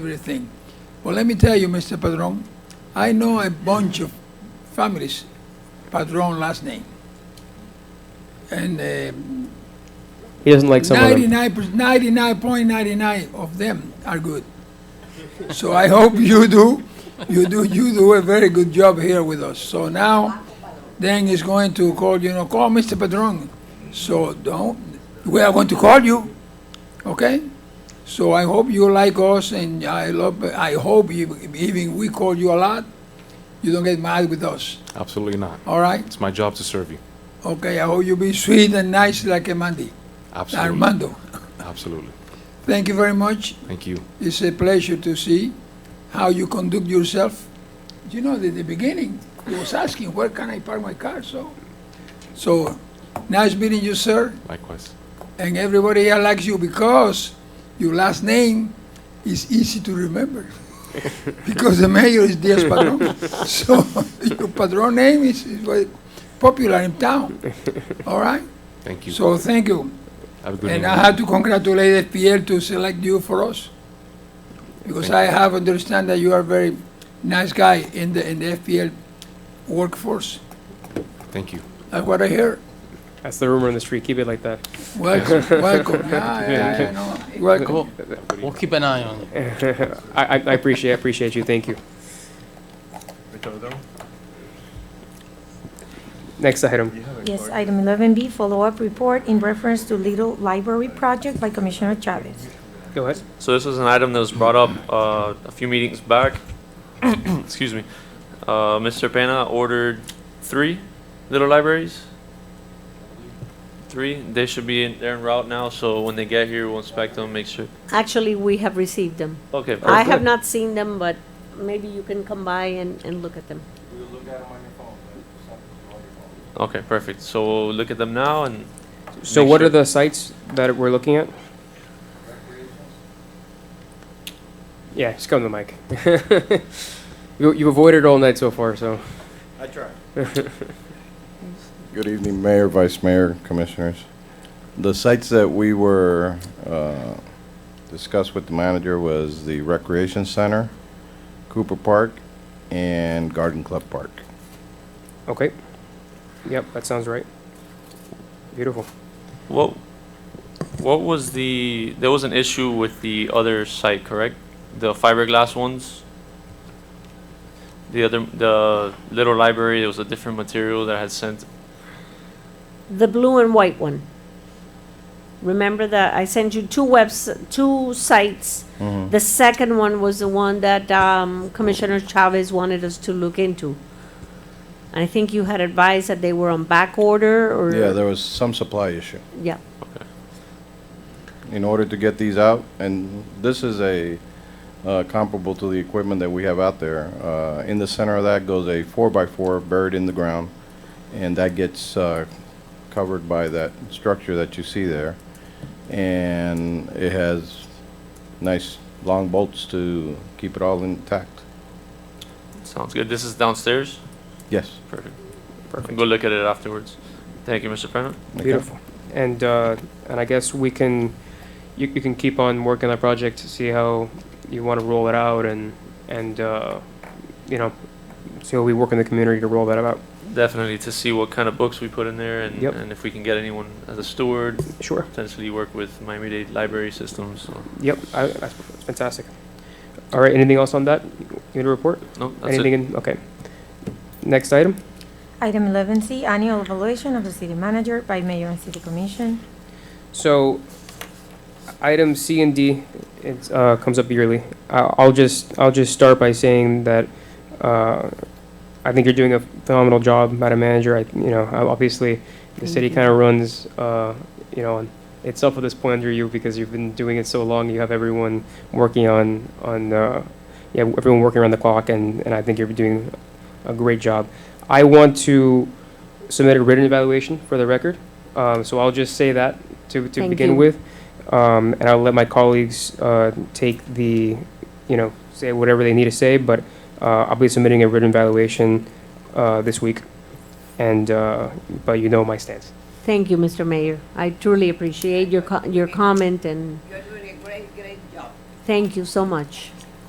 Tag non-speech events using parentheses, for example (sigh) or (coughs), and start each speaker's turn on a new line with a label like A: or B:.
A: everything. Well, let me tell you, Mr. Padron, I know a bunch of families, Padron last name. And um,
B: He doesn't like some of them.
A: 99.99 of them are good. So I hope you do, you do, you do a very good job here with us. So now, Dan is going to call, you know, call Mr. Padron. So don't, we are going to call you, okay? So I hope you like us and I love, I hope you- even we call you a lot, you don't get mad with us,
C: Absolutely not.
A: all right?
C: It's my job to serve you.
A: Okay, I hope you be sweet and nice like Mandy,
C: Absolutely.
A: Armando.
C: Absolutely.
A: Thank you very much.
C: Thank you.
A: It's a pleasure to see how you conduct yourself. You know, at the beginning, he was asking, where can I park my car? So, so nice meeting you, sir.
C: Likewise.
A: And everybody here likes you because your last name is easy to remember. (laughs) because the mayor is Diaz Padron. (laughs) so your Padron name is, is very popular in town. All right?
C: Thank you.
A: So thank you.
C: Have a good
A: And
C: evening.
A: I have to congratulate FPL to select you for us. Because I
C: Thank
A: have understand that you are very nice guy in the, in the FPL workforce.
C: Thank you.
A: That's what I hear.
B: That's the rumor in the street. Keep it like that.
C: (laughs)
A: Welcome, welcome. Yeah, yeah, yeah, no, Welcome.
D: We'll keep an eye on it.
B: I, I, I appreciate I appreciate you. Thank you. Next item.
E: Yes, item 11B, follow-up report in reference to Little Library Project by Commissioner Chavez.
B: Go ahead.
F: So this is an item that was brought up uh, a few meetings
G: (coughs)
F: back. Excuse me. Uh, Mr. Pena ordered three little libraries. Three. They should be in, they're en route now. So when they get here, we'll inspect them, make sure.
G: Actually, we have received them.
F: Okay.
G: I
F: perfect.
G: have not seen them, but maybe you can come by and, and look at them.
F: Okay. Perfect. So we'll look at them now and.
B: So,
F: make
B: what
F: sure-
B: are the sites that we're looking at? Yeah, just come to the mic. (laughs) you, you avoided all night so far, so.
H: Good evening, Mayor, Vice Mayor, Commissioners. The sites that we were, uh, discussed with the manager was the Recreation Center, Cooper Park, and Garden Club Park.
B: Okay. Yep, that sounds right. Beautiful.
F: What? What was the? There was an issue with the other site, correct? The fiberglass ones. The other, the little library. There was a different material that I had sent.
G: The blue and white one. Remember that I sent you two webs, two sites.
H: Mm-hmm.
G: The second one was the one that, um, Commissioner Chavez wanted us to look into. I think you had advised that they were on back order or.
H: Yeah, there was some supply issue.
G: Yeah.
H: In order to get these out, and this is a, uh, comparable to the equipment that we have out there. Uh, in the center of that goes a four-by-four buried in the ground, and that gets, uh, covered by that structure that you see there. And it has nice long bolts to keep it all intact.
F: Sounds good. This is downstairs.
H: Yes.
F: Perfect. I can
B: Perfect.
F: go look at it afterwards. Thank you, Mr. Pena.
H: Okay.
B: Beautiful. And, uh, and I guess we can, you, you can keep on working that project to see how you want to roll it out and, and, uh, you know, see how we work in the community to roll that out.
F: Definitely to see what kind of books we put in there and,
B: Yep.
F: and if we can get anyone as a steward,
B: Sure.
F: potentially work with Miami-Dade library systems. So,
B: Yep, I, that's fantastic. All right, anything else on that? You need to report?
F: no, that's
B: Anything
F: it.
B: in, okay. Next item?
E: Item 11C, annual evaluation of the city manager by mayor and city commission.
B: So, item C and D, it uh, comes up yearly. I- I'll just, I'll just start by saying that uh, I think you're doing a phenomenal job, Madam Manager. I, you know, I- obviously, the city kind of runs, uh, you know, on itself at this point under you because you've been doing it so long. You have everyone working on, on, uh, yeah, everyone working around the clock, and, and I think you're doing a great job. I want to submit a written evaluation for the record, um, so I'll just say that to, to
G: Thank
B: begin
G: you.
B: with. Um, and I'll let my colleagues, uh, take the, you know, say whatever they need to say, but, uh, I'll be submitting a written evaluation, uh, this week. And, uh, but you know my stance.
G: Thank you, Mr. Mayor. I truly appreciate your, co- your comment and. You're doing a great, great job. Thank you so much.